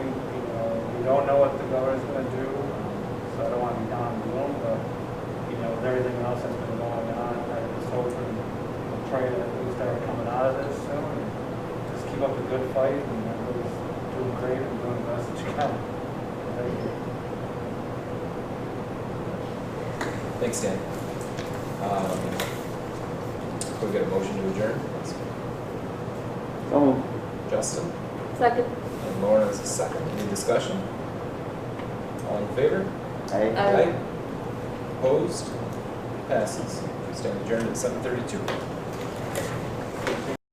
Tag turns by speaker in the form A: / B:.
A: don't know what the governor's gonna do, so I don't wanna be down in the room, but, you know, with everything else that's been going on, I just hope and pray that we start coming out of this soon. and Just keep up the good fight and everybody's doing great and doing the best that you can. Thank you.
B: Thanks, Dan. Um, Can we get a motion to adjourn? Justin
C: Second.
B: and Lauren is a second. Any discussion? All in favor?
C: Aye.
B: Opposed? Passes. We stand adjourned at seven thirty-two.